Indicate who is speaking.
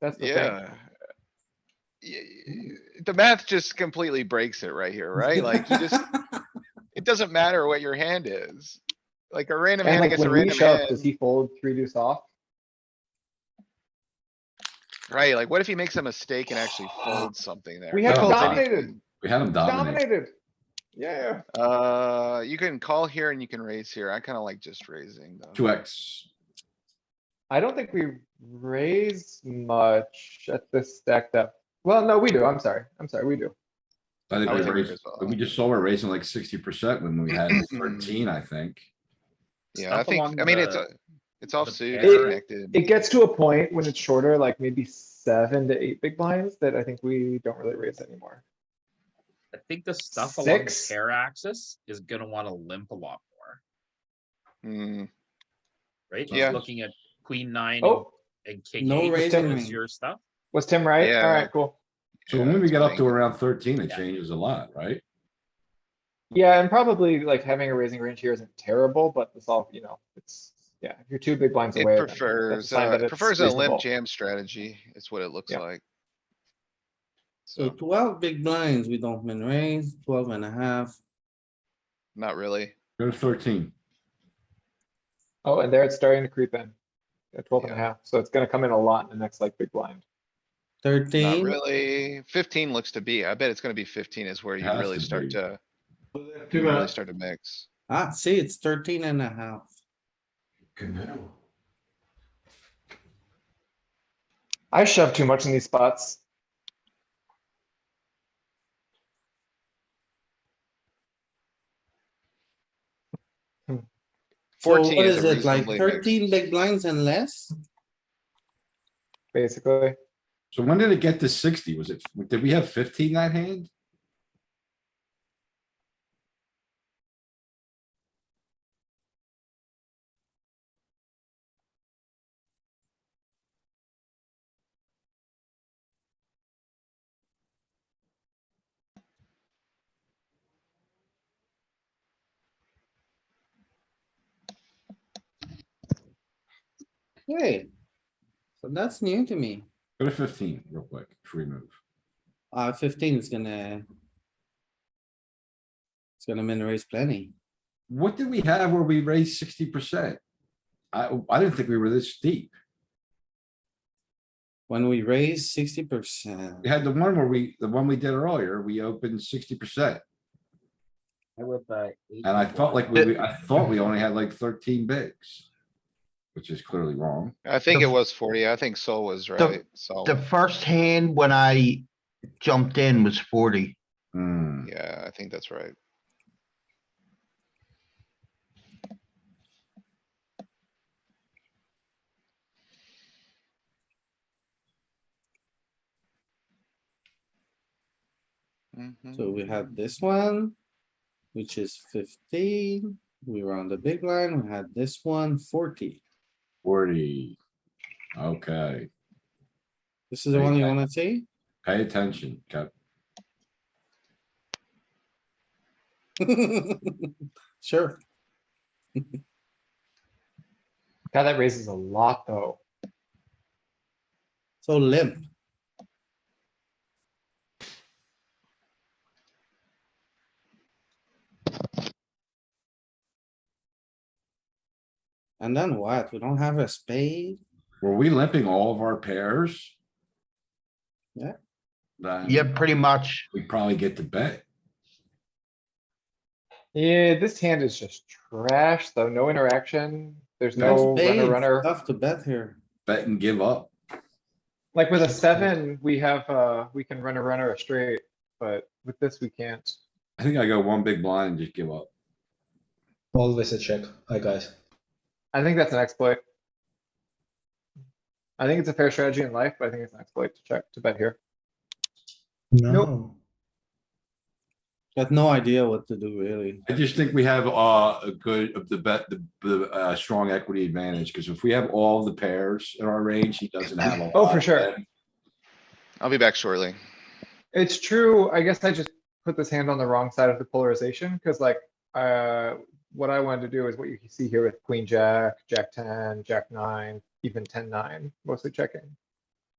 Speaker 1: That's the thing.
Speaker 2: Yeah. Y- y- The math just completely breaks it right here, right? Like, you just, it doesn't matter what your hand is. Like a random
Speaker 1: And
Speaker 2: hand
Speaker 1: like
Speaker 2: against a
Speaker 1: when we
Speaker 2: random
Speaker 1: shove,
Speaker 2: hand,
Speaker 1: does he fold three deuce off?
Speaker 2: right? Like, what if he makes a mistake and actually folds something there?
Speaker 1: We have
Speaker 3: folds
Speaker 2: Folds any-
Speaker 1: dominated,
Speaker 3: We had him dominate.
Speaker 1: dominated. Yeah,
Speaker 2: Uh, you can call here and you can raise here. I kinda like just raising though.
Speaker 3: Two X.
Speaker 1: I don't think we raise much at this stacked up. Well, no, we do. I'm sorry. I'm sorry, we do.
Speaker 3: I
Speaker 2: I
Speaker 3: think
Speaker 2: was
Speaker 3: we
Speaker 2: thinking
Speaker 3: raised,
Speaker 2: as well.
Speaker 3: we just saw we're raising like sixty percent when we had thirteen, I think.
Speaker 2: Yeah, I
Speaker 4: Stuff along
Speaker 2: think, I mean, it's,
Speaker 4: the-
Speaker 2: a- it's offsuit,
Speaker 4: pair.
Speaker 2: it's connected.
Speaker 1: It gets to a point when it's shorter, like maybe seven to eight big blinds that I think we don't really raise anymore.
Speaker 4: I think the stuff along the
Speaker 1: Six.
Speaker 4: hair axis is gonna wanna limp a lot more,
Speaker 2: Hmm,
Speaker 4: right?
Speaker 2: Yeah.
Speaker 4: Just looking at queen nine and-
Speaker 1: Oh,
Speaker 4: and king
Speaker 5: No
Speaker 4: eight
Speaker 5: raising.
Speaker 4: is your stuff.
Speaker 1: was Tim right?
Speaker 2: Yeah.
Speaker 1: Alright, cool.
Speaker 3: So
Speaker 2: Yeah,
Speaker 3: when we
Speaker 2: it's
Speaker 3: get up
Speaker 2: funny.
Speaker 3: to around thirteen, it
Speaker 4: Yeah.
Speaker 3: changes a lot, right?
Speaker 1: Yeah, and probably like having a raising range here isn't terrible, but it's all, you know, it's, yeah, if you're two big blinds
Speaker 2: It
Speaker 1: away. then that's a
Speaker 2: prefers,
Speaker 1: sign
Speaker 2: uh,
Speaker 1: that it's
Speaker 2: prefers a limp
Speaker 1: reasonable.
Speaker 2: jam strategy. It's what it looks
Speaker 1: Yeah.
Speaker 2: like.
Speaker 5: So
Speaker 2: So,
Speaker 5: twelve big blinds, we don't min raise, twelve and a half.
Speaker 2: not really.
Speaker 3: Go to thirteen.
Speaker 1: Oh, and there it's starting to creep in. At twelve and a
Speaker 2: Yeah.
Speaker 1: half, so it's gonna come in a lot in the next like big blind.
Speaker 2: Not
Speaker 5: Thirteen.
Speaker 2: really. Fifteen looks to be. I bet it's gonna be fifteen is where you
Speaker 3: Has
Speaker 2: really
Speaker 3: to
Speaker 2: start
Speaker 3: be.
Speaker 2: to, you
Speaker 6: Too
Speaker 2: really
Speaker 6: much.
Speaker 2: start to mix.
Speaker 5: Ah, see, it's thirteen and a half.
Speaker 6: Genau.
Speaker 1: I shove too much in these spots.
Speaker 5: So
Speaker 2: 14
Speaker 5: what
Speaker 2: is
Speaker 5: is
Speaker 2: a
Speaker 5: it, like
Speaker 2: reasonably
Speaker 5: thirteen big
Speaker 2: mixed.
Speaker 5: blinds and less?
Speaker 1: Basically,
Speaker 3: So when did it get to sixty? Was it, did we have fifteen that hand?
Speaker 5: Wait. So that's new to me.
Speaker 3: Go to fifteen real quick, free move.
Speaker 5: Uh, fifteen is gonna. It's gonna min raise plenty.
Speaker 3: What did we have where we raised sixty percent? I, I didn't think we were this deep.
Speaker 5: When we raise sixty percent,
Speaker 3: We had the one where we, the one we did earlier, we opened sixty percent. And I felt like we, I thought we only had like thirteen bigs. Which is clearly wrong.
Speaker 2: I think it was forty. I think Sol was right. So,
Speaker 7: The first hand when I jumped in was forty.
Speaker 3: Hmm,
Speaker 2: yeah, I think that's right.
Speaker 5: so we have this one. Which is fifteen, we were on the big line, we had this one 40.
Speaker 3: forty. Okay,
Speaker 5: This is the one you
Speaker 3: Okay.
Speaker 5: wanna see?
Speaker 3: pay attention, Cap.
Speaker 5: Sure,
Speaker 1: God, that raises a lot though.
Speaker 5: so limp. And then what? We don't have a spade?
Speaker 3: Were we limping all of our pairs?
Speaker 5: Yeah.
Speaker 3: Then
Speaker 7: Yeah, pretty much.
Speaker 3: We probably get to bet.
Speaker 1: Yeah, this hand is just trash though, no interaction, there's
Speaker 3: No
Speaker 1: no runner
Speaker 5: spades,
Speaker 1: runner.
Speaker 5: Tough to bet here.
Speaker 3: Bet and give up.
Speaker 1: Like with a seven, we have, uh, we can run a runner a straight, but with this, we can't.
Speaker 3: I think I go one big blind and just give up.
Speaker 6: Always a check, I guess.
Speaker 1: I think that's an exploit. I think it's a fair strategy in life, but I think it's an exploit to check, to bet here. Nope.
Speaker 5: Got no idea what to do really.
Speaker 3: I just think we have uh, a good, of the bet, the, the, uh, strong equity advantage, because if we have all the pairs in our range, he doesn't have a
Speaker 1: Oh,
Speaker 3: lot
Speaker 1: for
Speaker 3: of
Speaker 1: sure.
Speaker 3: them.
Speaker 2: I'll be back shortly.
Speaker 1: It's true, I guess I just put this hand on the wrong side of the polarization, cuz like, uh, what I wanted to do is what you see here with queen, jack, jack ten, jack nine, even ten, nine, mostly checking.